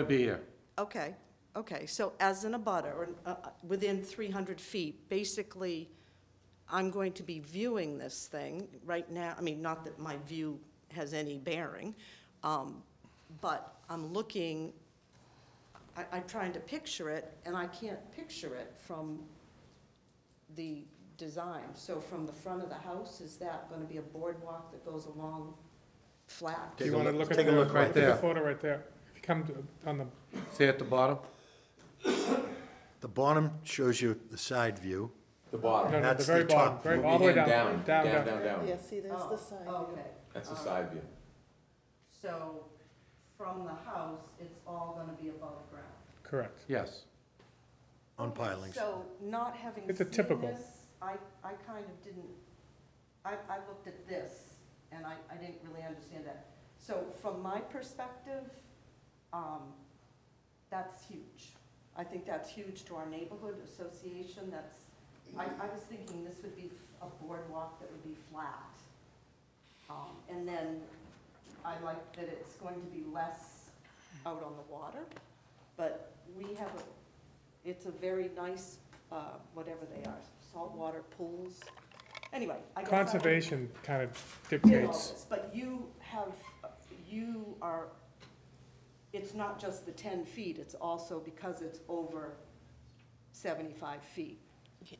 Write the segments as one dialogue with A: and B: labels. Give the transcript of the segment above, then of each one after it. A: I'd be here.
B: Okay, okay, so as an abutter, or uh, uh, within 300 feet, basically, I'm going to be viewing this thing right now, I mean, not that my view has any bearing, um, but I'm looking, I, I'm trying to picture it, and I can't picture it from the design. So from the front of the house, is that going to be a boardwalk that goes along flat?
A: Take
C: You
A: a
C: want to
A: look-
C: look at the.
A: take a look right
C: at
A: there.
C: the photo right there. If you come to, on the,
A: See at the bottom?
D: The bottom shows you the side view.
E: The
C: no,
E: bottom.
C: no, the
D: That's
C: very
D: the
C: bottom,
D: top
C: very,
D: view.
C: all the way down,
E: Down,
C: down,
E: down,
C: down.
E: down, down.
F: Yeah, see, there's
B: Oh,
F: the side view.
B: Okay.
E: That's the
B: Um,
E: side view.
B: So from the house, it's all gonna be above ground?
C: Correct.
A: Yes.
D: On pilings.
B: So not having
C: It's a
B: seen
C: typical.
B: this, I, I kind of didn't, I, I looked at this and I, I didn't really understand that. So from my perspective, um, that's huge. I think that's huge to our neighborhood association, that's, I, I was thinking this would be a boardwalk that would be flat. Um, and then I like that it's going to be less out on the water, but we have a, it's a very nice, uh, whatever they are, saltwater pools. Anyway, I guess. I-
C: Conservation kind of
B: did all
C: dictates,
B: this, But you have, you are, it's not just the ten feet, it's also because it's over seventy-five feet.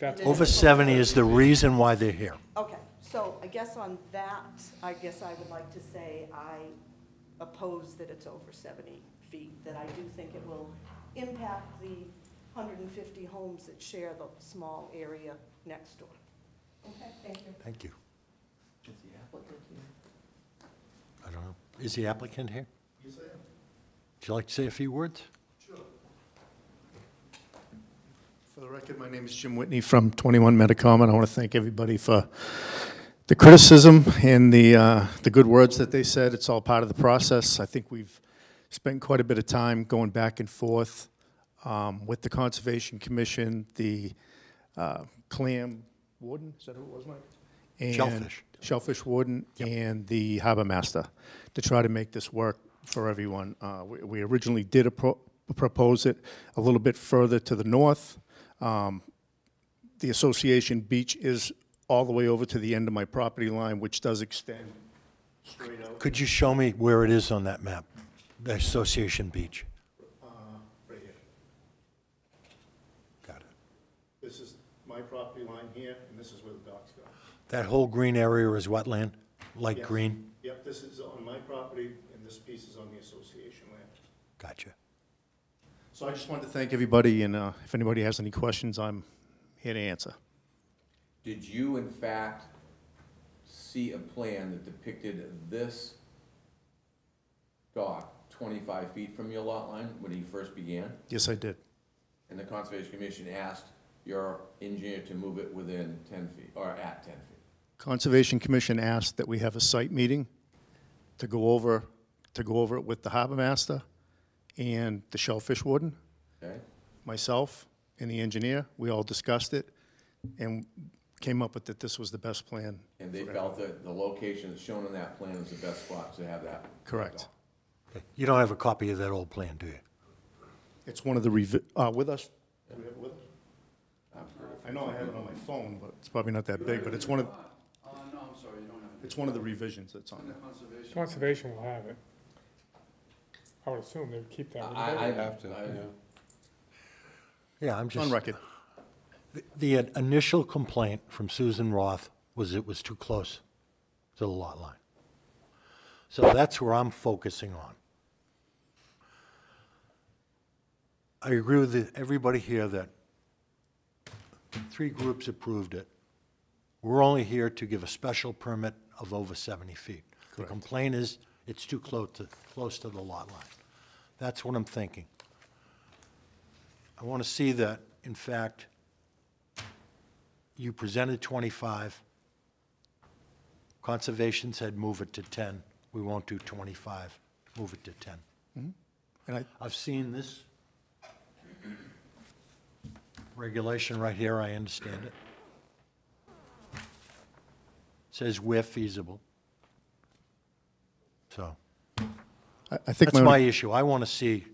C: that's,
B: Well-
D: Over 70 is the reason why they're here.
B: Okay, so I guess on that, I guess I would like to say I oppose that it's over 70 feet, that I do think it will impact the 150 homes that share the small area next door. Okay, thank you.
D: Thank you. I don't know. Is the applicant here? Yes, I am. Would you like to say a few words?
G: For the record, my name is Jim Whitney from 21 Metacom, and I want to thank everybody for the criticism and the, uh, the good words that they said. It's all part of the process. I think we've spent quite a bit of time going back and forth um, with the Conservation Commission, the uh, clam warden, is that who it was, Mike? And-
D: Shellfish.
G: Shellfish warden and the harbor master to try to make this work for everyone. Uh, we, we originally did appro- propose it a little bit further to the north. Um, the association beach is all the way over to the end of my property line, which does extend straight out.
D: Could you show me where it is on that map? The Association Beach?
G: Right here.
D: Got it.
G: This is my property line here, and this is where the docks go.
D: That whole green area is wetland, light
G: Yes.
D: green?
G: Yep, this is on my property, and this piece is on the association land.
D: Gotcha.
G: So I just wanted to thank everybody, and uh, if anybody has any questions, I'm here to answer.
E: Did you in fact see a plan that depicted this dock twenty-five feet from your lot line when he first began?
G: Yes, I did.
E: And the Conservation Commission asked your engineer to move it within ten feet, or at ten feet?
G: Conservation Commission asked that we have a site meeting to go over, to go over it with the harbor master and the shellfish warden,
E: Okay?
G: myself and the engineer. We all discussed it and came up with that this was the best plan.
E: And they felt that the location that's shown on that plan is the best spot to have that.
G: Correct.
D: Okay. You don't have a copy of that old plan, do you?
G: It's one of the revi, uh, with us? Do we have it with us? I know I have it on my phone, but it's probably not that big, but it's one of,
H: Uh, no, I'm sorry, you don't have it.
G: it's one of the revisions that's on
H: In
G: there.
H: the conservation,
C: conservation will have it. I would assume they would keep that. wouldn't they?
E: I, I.
A: Have to,
E: I-
A: yeah.
D: Yeah, I'm just.
G: On record.
D: The initial complaint from Susan Roth was it was too close to the lot line. So that's where I'm focusing on. I agree with the- everybody here that three groups approved it. We're only here to give a special permit of over 70 feet. The complaint is it's too close to, close to the lot line. That's what I'm thinking. I want to see that, in fact, you presented 25. Conservation said move it to 10. We won't do 25. Move it to 10.
G: And I,
D: I've seen this regulation right here, I understand it. Says where feasible. So,
G: I- I think
D: that's my
G: my,
D: issue. I want to see